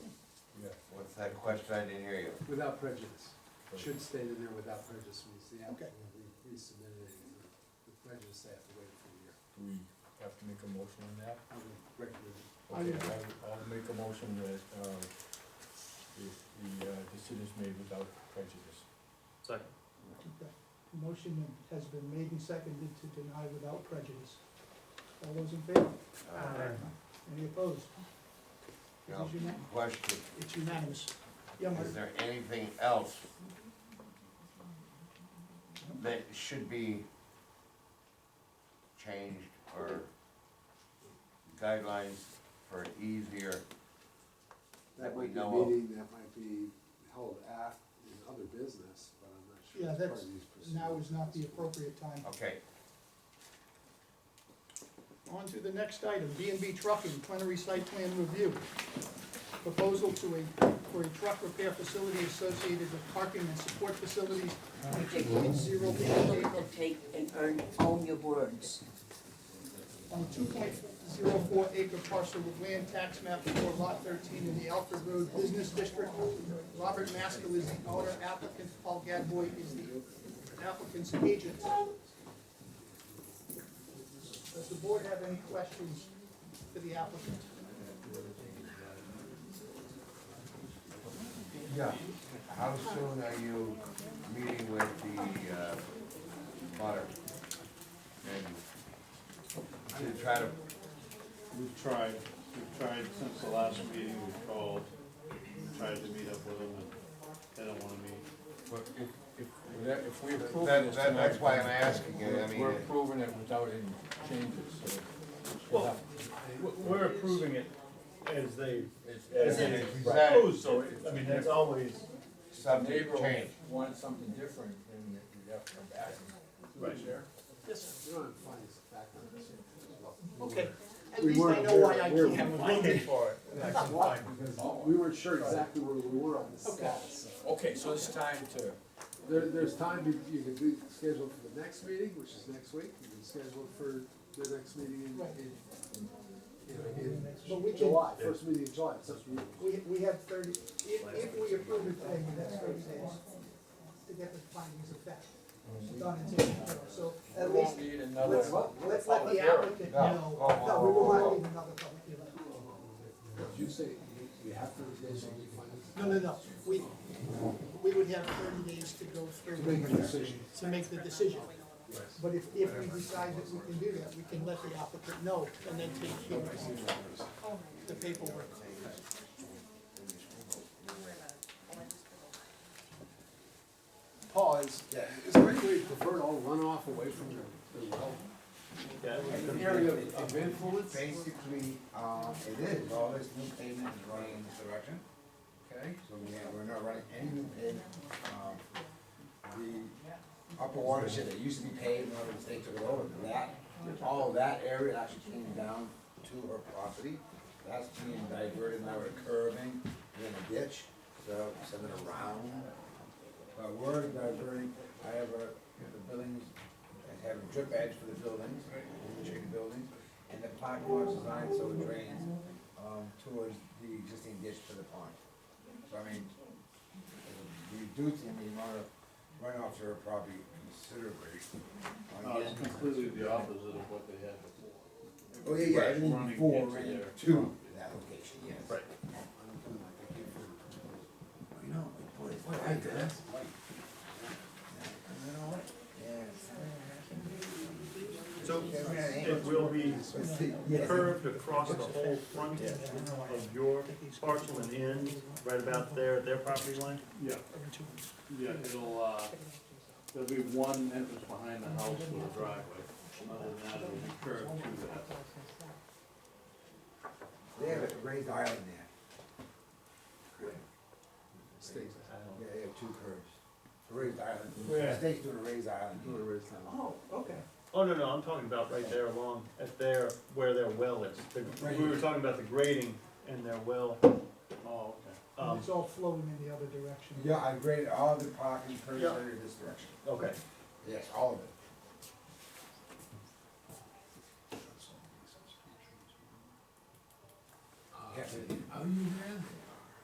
that question, I didn't hear you. Without prejudice. Should state in there without prejudice, means the applicant Okay. will resubmit it. With prejudice, they have to wait for a year. Do we have to make a motion on that? I would recommend it. I- Okay, I'll- I'll make a motion that, uh, the, the uh, decision is made without prejudice. Second. Motion has been made and seconded to deny without prejudice. All those in favor? Uh, Uh, Any opposed? It Now, is unan- question, It's unanimous. Yeah, Mark? is there anything else that should be changed or guidelines for easier? That That we might be a know of. meeting that might be held af, in other business, but I'm not sure. Yeah, it's part of that's- these Now proceedings. is not the appropriate time. Okay, On to the next item, B and B Trucking, plenary site plan review. Proposal to a, for a truck repair facility associated with parking and support facilities, Take point zero You need to take and earn, own your words. on two point zero four acre parcel of land tax map for lot thirteen in the Alfred Road Business District. Robert Maskell is the owner applicant, Paul Gadboy is the applicant's agent. Does the board have any questions for the applicant? yeah, how soon are you meeting with the, uh, butter? And to try to, We've tried, we've tried since the last meeting, we've called, tried to meet up with them, and they don't wanna meet. But if, if, if we approve that, this that, that's why I'm tonight, asking you, I we're- mean. We're it- approving it without any changes, so. we'll Well- have- We're approving it as they, Is it as they exact- propose, so, it- I mean, that's always, subject Neighbor change? wants something different, then we have to come back. Right. Yes, You don't have to find this background. okay. At We least I weren't- know why I we're- can't. we're looking for That's why, because we weren't sure exactly where we were on the Okay. status. Okay, so it's time to, There, there's time, you, you can do, schedule for the next meeting, which is next week, you can schedule for the next meeting in, Right. in, in, But we in can- July, first meeting in July, it's up to you. We, we have thirty, if, if we approve it today, we have thirty days to get the findings of fact done and taken care of, so we at least, won't need another. let's, let's let the applicant No. know. Oh, oh, No, we will oh, not oh. need another public hearing. You say, you- you have thirty days on your findings. No, no, no, we, we would have thirty days to go through. To make a decision. To make the decision. But if, if we decide that we can do that, we can let the applicant know and then take care of the paperwork. Paul, is, is there any way you prefer to all run off away from the, the well? that. Area of- of influence? Basically, uh, it is, all this new pavement is running in this direction, Okay. so we, we're not running any new pavement. Um, The upper watershed that used to be paved, now the state took it over, that, all of that area actually came down to her property. That's being diverted now, we're curving, in a ditch, so send it around. But we're diverting, I have a, the buildings, I have a drip edge for the buildings, the chicken buildings, and the parking lot's designed so it drains, um, towards the existing ditch to the pond. So I mean, reducing the amount of runoff to her property considerably. No, Oh, it's completely the opposite of what they had before. Oh, yeah, yeah, Right, it will be running four into and their- two, that location, yes. Right. I know, but it's like that. You know what? So it will be curved across the whole front of your parcel and end, right about there at their property line? Yeah, yeah, it'll, uh, there'll be one entrance behind the house with a driveway, other than that, it'll be curved to that. They have a raised island there. State. Yeah, they have two curves. A raised island. Where? The state's doing a raised island. Do a raise now. Oh, okay. Oh, no, no, I'm talking about right there along, at their, where their well is. The- We were talking about the grading and their well. Oh, okay. And Um, it's all flowing in the other direction. Yeah, I graded all the parking curves Yeah. under this direction. okay. Yes, all of it. Are you there?